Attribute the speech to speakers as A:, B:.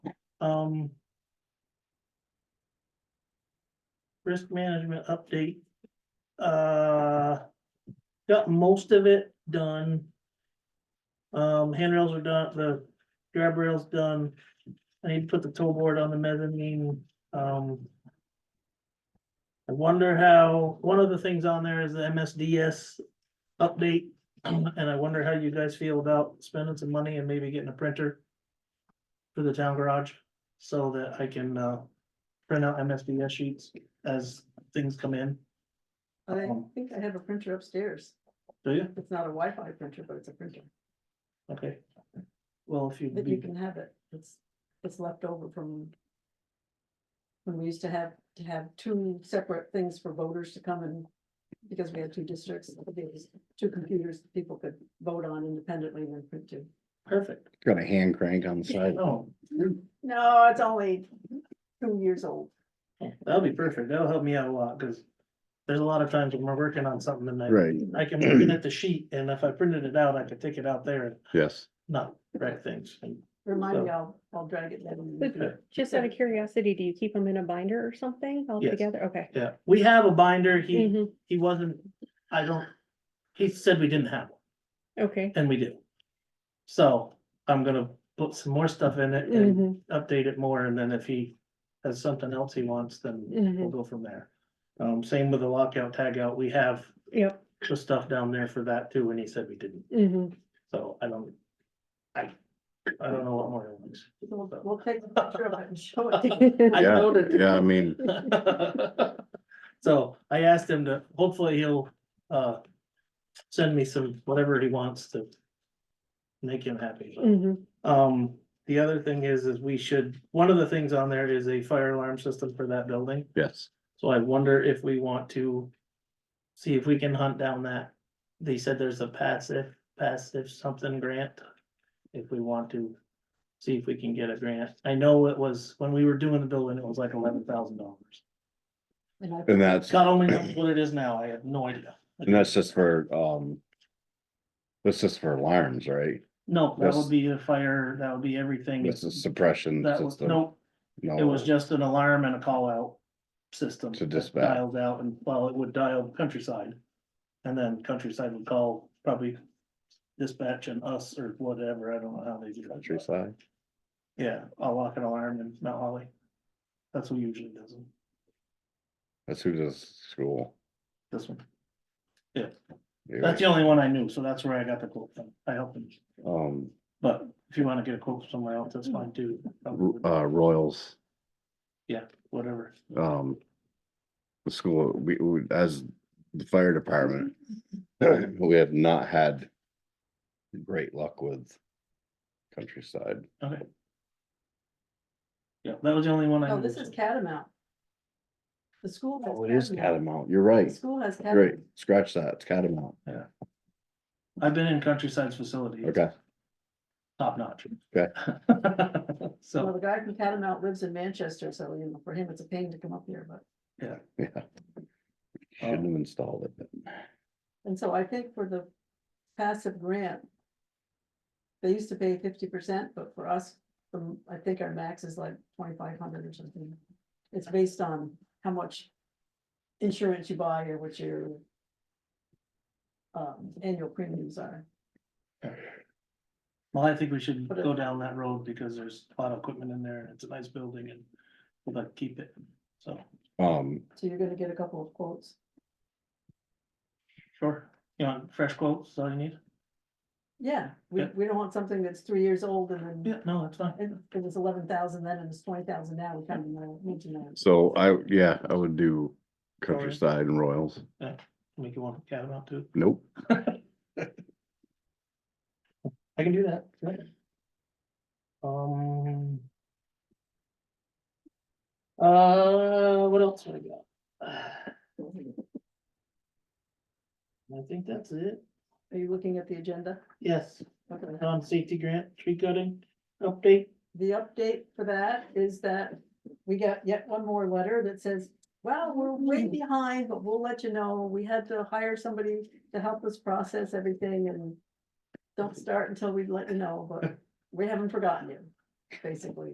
A: um. Risk management update. Uh, got most of it done. Um, handrails are done, the grab rail's done. I need to put the toe board on the mezzanine, um. I wonder how, one of the things on there is the MSDS update. And I wonder how you guys feel about spending some money and maybe getting a printer for the town garage so that I can uh print out MSDS sheets as things come in.
B: I
A: Um,
B: think I have a printer upstairs.
A: Do you?
B: It's not a Wi-Fi printer, but it's a printer.
A: Okay. Well, if you'd
B: But you
A: be,
B: can have it. It's, it's left over from. When we used to have, to have two separate things for voters to come and, because we had two districts, there was two computers that people could vote on independently and then print to.
A: perfect.
C: Got a hand crank on the side.
A: Oh,
B: Mm-hmm. No, it's only two years old.
A: that'll be perfect. That'll help me out a lot because there's a lot of times when we're working on something and I,
C: Right,
A: I can look at the sheet and if I printed it out, I could take it out there and
C: yes.
A: not wreck things.
B: Remind me, I'll, I'll drag it down.
A: Okay.
D: Just out of curiosity, do you keep them in a binder or something all
A: Yes.
D: together? Okay.
A: Yeah, we have a binder. He,
D: Mhm.
A: he wasn't, I don't, he said we didn't have one.
D: Okay.
A: And we do. So I'm gonna put some more stuff in it and
D: Mhm.
A: update it more, and then if he has something else he wants, then we'll
D: Mhm.
A: go from there. Um, same with the lockout, tagout, we have
D: Yep.
A: the stuff down there for that too, and he said we didn't,
D: Mhm.
A: so I don't. I, I don't know what more it was.
B: We'll we'll take a picture of it and show it. to you.
D: Mm-hmm.
A: I
C: Yeah,
A: noted.
C: Yeah, I mean,
A: So I asked him to, hopefully he'll, uh, send me some, whatever he wants to make him happy.
D: Mhm.
A: Um, the other thing is, is we should, one of the things on there is a fire alarm system for that building,
C: yes,
A: so I wonder if we want to. See if we can hunt down that, they said there's a passive, passive something grant. If we want to, see if we can get a grant, I know it was, when we were doing the building, it was like eleven thousand dollars.
B: And I-
C: and that's,
A: God only knows what it is now, I have no idea.
C: and that's just for, um. That's just for alarms, right?
A: No, that
C: That's-
A: would be a fire, that would be everything,
C: That's a suppression
A: that was,
C: system.
A: no, It was
C: No,
A: just an alarm and a call out system.
C: To
A: that
C: dispatch.
A: Dialed out and, well, it would dial countryside. And then countryside would call probably dispatch and us or whatever, I don't know how they do it. but-
C: Countryside,
A: Yeah, I'll lock an alarm in Mount Holly. That's who usually does them,
C: that's who does school.
A: this one.
C: You're
A: That's the only one I knew, so that's where I got the quote from. I helped them,
C: right. Um,
A: but if you wanna get a quote somewhere else, that's fine too.
C: R- uh, Royals,
A: Whatever,
C: um. The school, we, we- as the fire department, we have not had. Great luck with. Countryside,
A: okay. Yeah, that was the only one I
B: No,
A: knew.
B: Oh, this is Catamount. The school. has
C: oh, it is Catamount, you're right.
B: The school has
C: Great,
B: Catamount.
C: scratch that, it's Catamount,
A: I've been in countryside's facility.
C: okay,
A: top notch.
C: Okay.
B: Well,
A: So,
B: the guy from Catamount lives in Manchester, so you know, for him, it's a pain to come up here, but,
C: yeah. Shouldn't have installed it.
B: and so I think for the passive grant. They used to pay fifty percent, but for us, um, I think our max is like twenty-five hundred or something. It's based on how much insurance you buy or what your. Um, annual premiums are.
A: well, I think we should
B: But it-
A: go down that road because there's a lot of equipment in there and it's a nice building and we'd like to keep it. So,
C: Um,
B: So you're gonna get a couple of quotes.
A: sure, you want fresh quotes, is that all you need?
B: Yeah, we,
A: Yeah.
B: we don't want something that's three years old and
A: Yeah,
B: then,
A: no, that's fine.
B: and it was eleven thousand then and it's twenty thousand now, we kind of know, need to know.
C: so
A: uh,
C: I, yeah, I would do Countryside and Royals,
A: Make you want cat out too.
C: nope,
A: I can do that. right? Um. Uh, what else do I got? I think that's it.
B: Are you looking at the agenda?
A: Yes,
B: Okay.
A: non-safety grant, tree cutting update.
B: The update for that is that we got yet one more letter that says, well, we're way
A: Mm-hmm.
B: behind, but we'll let you know. We had to hire somebody to help us process everything and don't start until we let you know, but we haven't forgotten you, basically.